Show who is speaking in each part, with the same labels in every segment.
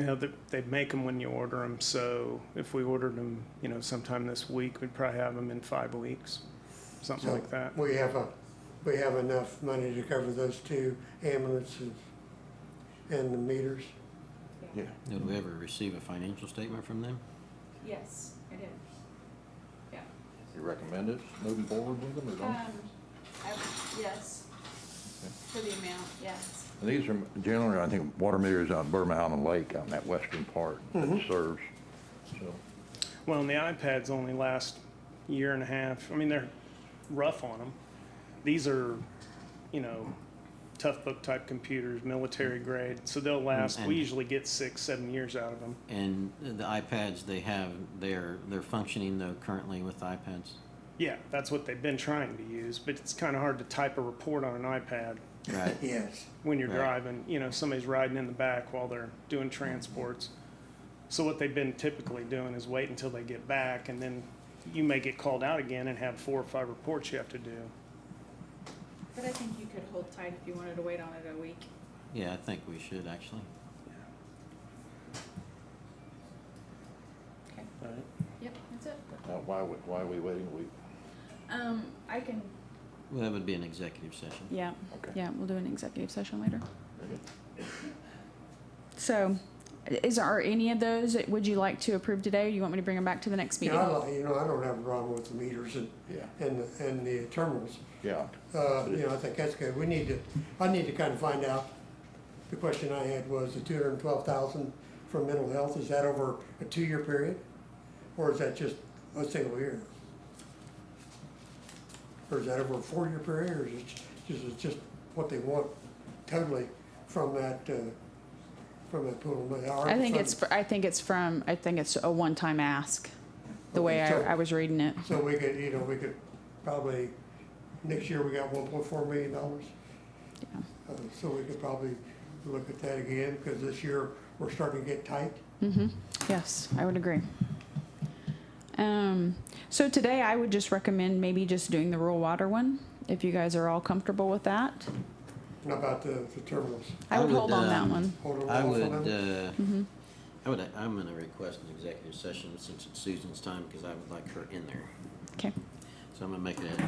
Speaker 1: You know, they, they make them when you order them, so if we ordered them, you know, sometime this week, we'd probably have them in five weeks, something
Speaker 2: So
Speaker 1: like that.
Speaker 2: We have a, we have enough money to cover those two ambulances and the meters.
Speaker 3: Yeah.
Speaker 4: Did we ever receive a financial statement from them?
Speaker 5: Yes, I did. Yeah.
Speaker 3: You recommend it, moving forward with them or
Speaker 5: Um,
Speaker 6: Uh,
Speaker 3: don't?
Speaker 5: I, yes, for the amount, yes.
Speaker 3: And These are generally, I think, water meters on Burma Island Lake on that western part that serves. Mm-hmm. So,
Speaker 1: Well, and the iPads only last year and a half. I mean, they're rough on them. These are, you know, tough book type computers, military grade, so they'll last.
Speaker 4: and-
Speaker 1: We usually get six, seven years out of them.
Speaker 4: And the iPads they have, they're, they're functioning though currently with iPads?
Speaker 1: Yeah, that's what they've been trying to use, but it's kind of hard to type a report on an iPad
Speaker 4: Right.
Speaker 2: Yes.
Speaker 1: when you're
Speaker 4: Right.
Speaker 1: driving. You know, somebody's riding in the back while they're doing transports. So what they've been typically doing is wait until they get back, and then you may get called out again and have four or five reports you have to do.
Speaker 5: But I think you could hold tight if you wanted to wait on it a week.
Speaker 4: Yeah, I think we should actually.
Speaker 5: Okay.
Speaker 1: Right.
Speaker 5: Yep, that's it.
Speaker 3: now, why, we- why are we waiting a week?
Speaker 5: Um, I can.
Speaker 4: Well, that would be an executive session.
Speaker 6: Yeah,
Speaker 3: Okay.
Speaker 6: yeah, we'll do an executive session later.
Speaker 3: Very good.
Speaker 6: So, is, are any of those, that would you like to approve today, or you want me to bring them back to the next
Speaker 2: You
Speaker 6: meeting?
Speaker 2: know, I like, you know, I don't have a problem with the meters and,
Speaker 3: Yeah,
Speaker 2: and, the- and the terminals.
Speaker 3: yeah.
Speaker 2: Uh, you know, I think that's good. We need to, I need to kind of find out, the question I had was the two hundred and twelve thousand for mental health, is that over a two-year period? Or is that just a single year? Or is that over a four-year period, or is it just, is it just what they want totally from that, uh, from that pool of money?
Speaker 6: I think it's, fr- I think it's from, I think it's a one-time ask, the way
Speaker 2: Okay, so-
Speaker 6: I, I was reading it.
Speaker 2: So we could, you know, we could probably, next year we got one point four million dollars.
Speaker 6: Yeah.
Speaker 2: Uh, So we could probably look at that again, because this year, we're starting to get tight.
Speaker 6: Mm-hmm, yes, I would agree. Um, so today I would just recommend maybe just doing the rural water one, if you guys are all comfortable with that.
Speaker 2: How about the, the terminals?
Speaker 6: I
Speaker 4: I
Speaker 6: would
Speaker 4: would,
Speaker 6: hold on that
Speaker 4: um,
Speaker 6: one. Mm-hmm.
Speaker 2: Hold on,
Speaker 4: I
Speaker 2: hold
Speaker 4: would,
Speaker 2: on.
Speaker 4: uh, I would, I'm gonna request an executive session since it's Susan's time, because I would like her in there.
Speaker 6: Okay,
Speaker 4: So I'm gonna make a, uh,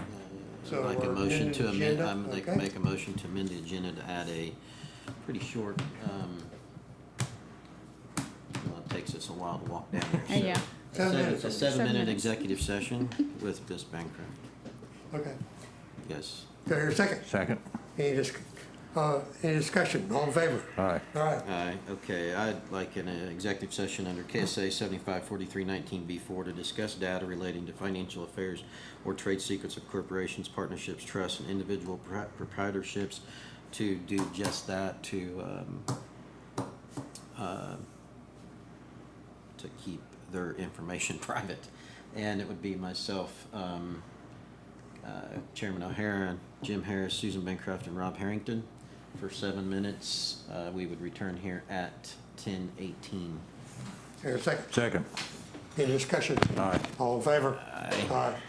Speaker 2: So
Speaker 4: like a
Speaker 2: we're
Speaker 4: motion
Speaker 2: amending
Speaker 4: to
Speaker 2: the
Speaker 4: amend,
Speaker 2: agenda?
Speaker 4: I'm like,
Speaker 2: Okay.
Speaker 4: make a motion to amend the agenda to add a pretty short, um, well, it takes us a while to walk down
Speaker 6: Uh,
Speaker 4: there. so-
Speaker 6: yeah.
Speaker 2: Seven
Speaker 4: Seven-
Speaker 2: minutes.
Speaker 4: A
Speaker 6: Seven
Speaker 4: seven-minute
Speaker 6: minutes.
Speaker 4: executive session with Ms. Bancroft.
Speaker 2: Okay,
Speaker 4: Yes.
Speaker 2: so here's a second.
Speaker 3: Second?
Speaker 2: Any dis, uh, any discussion, all in favor?
Speaker 3: All right.
Speaker 2: All right,
Speaker 4: Aye, okay, I'd like an uh, executive session under KSA seventy-five forty-three nineteen B four to discuss data relating to financial affairs or trade secrets of corporations, partnerships, trusts, and individual pro- proprietorships to do just that, to, um, uh, to keep their information private. And it would be myself, um, uh, Chairman O'Hara, Jim Harris, Susan Bancroft, and Rob Harrington for seven minutes. Uh, We would return here at 10:18.
Speaker 2: here's a second.
Speaker 3: Second.
Speaker 2: Any discussion?
Speaker 3: All right.
Speaker 2: All in favor?
Speaker 4: Aye.
Speaker 2: All right.